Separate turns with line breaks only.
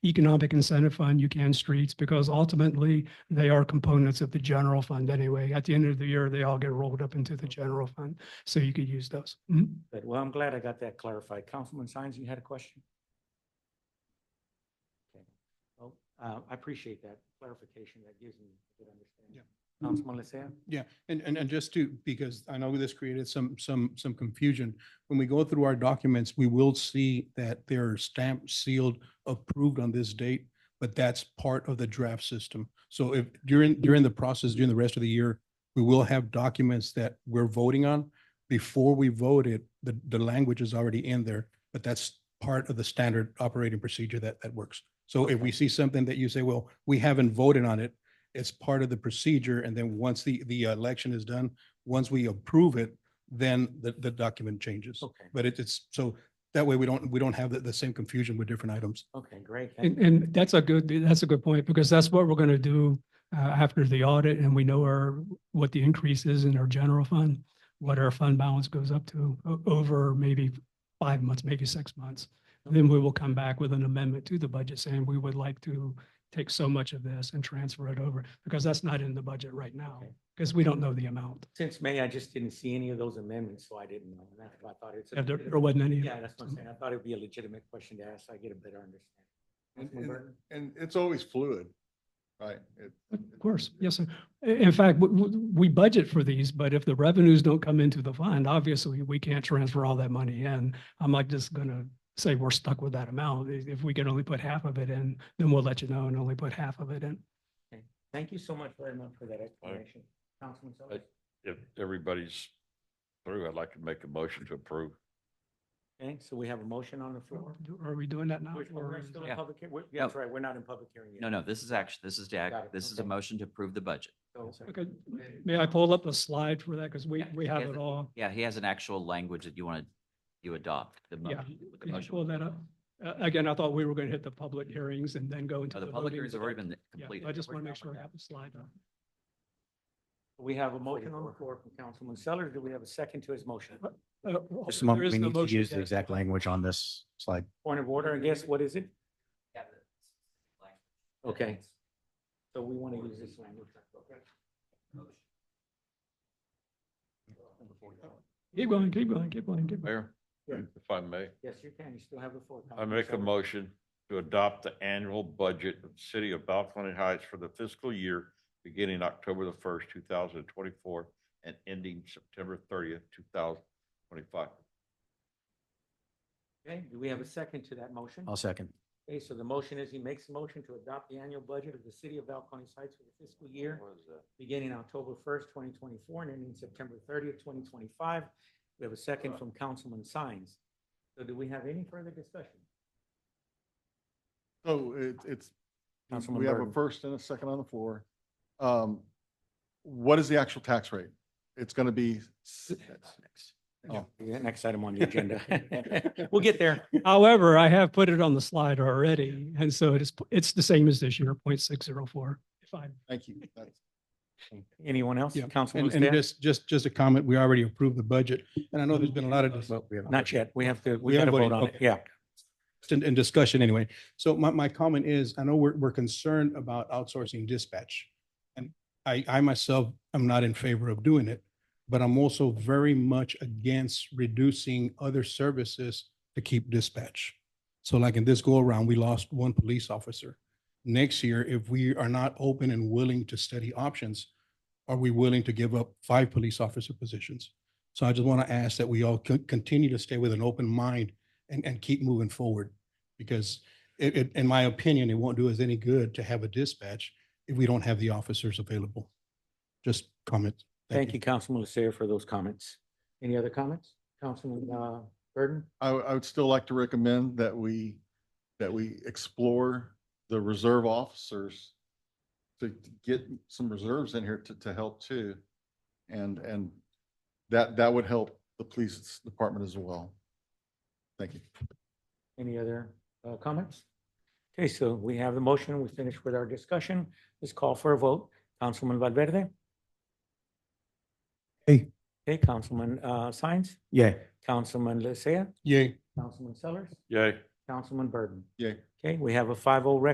economic incentive fund, you can streets, because ultimately they are components of the general fund anyway. At the end of the year, they all get rolled up into the general fund, so you could use those. Mhm.
Good. Well, I'm glad I got that clarified. Councilman Sines, you had a question? Okay. Well, uh, I appreciate that clarification. That gives me a good understanding.
Mm-hmm.
Councilman Lysia?
Um, Yeah, and, and, and just to, because I know this created some, some, some confusion. When we go through our documents, we will see that they're stamped, sealed, approved on this date, but that's part of the draft system. So if during, during the process, during the rest of the year, we will have documents that we're voting on. Before we vote it, the, the language is already in there, but that's part of the standard operating procedure that, that works. So if we see something that you say, well, we haven't voted on it, it's part of the procedure. And then once the, the election is done, once we approve it, then the, the document changes.
Okay,
But it- it's, so that way we don't, we don't have the, the same confusion with different items.
okay, great. Thank
And,
you.
and that's a good, that's a good point, because that's what we're going to do uh, after the audit, and we know our, what the increase is in our general fund, what our fund balance goes up to o- over maybe five months, maybe six months. Then we will come back with an amendment to the budget saying we would like to take so much of this and transfer it over, because that's not in the budget right now,
Okay.
because we don't know the amount.
Since May, I just didn't see any of those amendments, so I didn't know. And that's why I thought it's. a
Yeah, There there
legitimate-
wasn't any.
Yeah, that's what I'm saying. I thought it'd be a legitimate question to ask. so I get a better understanding.
And-
Councilman Burton?
And it's always fluid, right? It-
Of course, yes, sir. I- In fact, we, we budget for these, but if the revenues don't come into the fund, obviously, we can't transfer all that money in. I'm not just gonna say we're stuck with that amount. I- If we can only put half of it in, then we'll let you know and only put half of it in.
Thank you so much very much for that explanation. Councilman Sullivan?
if everybody's through, I'd like to make a motion to approve.
Okay, so we have a motion on the floor.
Are we doing that now?
Which one?
or
We're
is-
still in
Yeah.
public, hea- we're- yeah, that's right, we're not in public hearing yet.
No, no, this is actually, this is
Got it,
Jack. This is a
okay.
motion to approve the budget.
So-
Okay, may I pull up a slide for that? Because we,
Yeah,
we
yeah,
have it
the-
all.
Yeah, he has an actual language that you want to, you adopt. the mo-
Yeah.
with the
Could you
motion.
pull that up? Uh, again, I thought we were gonna hit the public hearings and then go into.
Oh, The public
voting,
hearings
but
have already
I-
been
yeah,
completed.
I just wanna
We're
make
done
sure I
with that.
have the slide up.
We have a motion on the floor from Councilman Sellers. Do we have a second to his motion?
Uh,
Just a
there
moment,
is
we
no
need to
motion
use the
yet.
exact language on this slide.
Point of order, I guess, what is it? Okay. So we want to use this language.
Keep going, keep going, keep going, keep going.
Mayor,
Yeah.
if I may,
Yes, you can, you still have the floor.
I
Councilman
make a
Sellers.
motion to adopt the annual budget of the city of Balcony Heights for the fiscal year beginning October the first, two thousand and twenty-four and ending September thirtieth, two thousand twenty-five.
Okay, do we have a second to that motion?
I'll second.
Okay, so the motion is he makes a motion to adopt the annual budget of the city of Balcony Heights for the fiscal year beginning October first, twenty twenty-four, and ending September thirtieth, twenty twenty-five. We have a second from Councilman Sines. So do we have any further discussion?
So it, it's,
Councilman
we have a
Burton.
first and a second on the floor. Um, what is the actual tax rate? It's going to be, s-
Oh, yeah, next item on the agenda. We'll get there.
However, I have put it on the slide already, and so it is, it's the same as this year, 0.604. If I,
thank you. That's-
Anyone else?
Yeah,
Councilman
And, and
Lysia?
just, just, just a comment, we already approved the budget. And I know there's been a lot of,
But we have-
Not yet. We have to, we
We
gotta
haven't
vote
voted,
on it.
okay.
Yeah.
in, in discussion anyway. So my, my comment is, I know we're, we're concerned about outsourcing dispatch. And I, I myself am not in favor of doing it, but I'm also very much against reducing other services to keep dispatch. So like in this go around, we lost one police officer. Next year, if we are not open and willing to study options, are we willing to give up five police officer positions? So I just want to ask that we all co- continue to stay with an open mind and, and keep moving forward. Because it, it, in my opinion, it won't do us any good to have a dispatch if we don't have the officers available. Just comment.
Thank you, Councilman Lysia, for those comments. Any other comments? Councilman, uh, Burton?
I, w- I would still like to recommend that we, that we explore the reserve officers to to get some reserves in here to, to help too. And, and that, that would help the police department as well. Thank you.
Any other uh, comments? Okay, so we have the motion. We finished with our discussion. Let's call for a vote. Councilman Valverde?
Hey.
Hey, Councilman uh, Sines,
Yeah.
Councilman Lysia,
Yay.
Councilman Sellers,
Yay.
Councilman Burton.
Yay.
Okay, we have a five oh record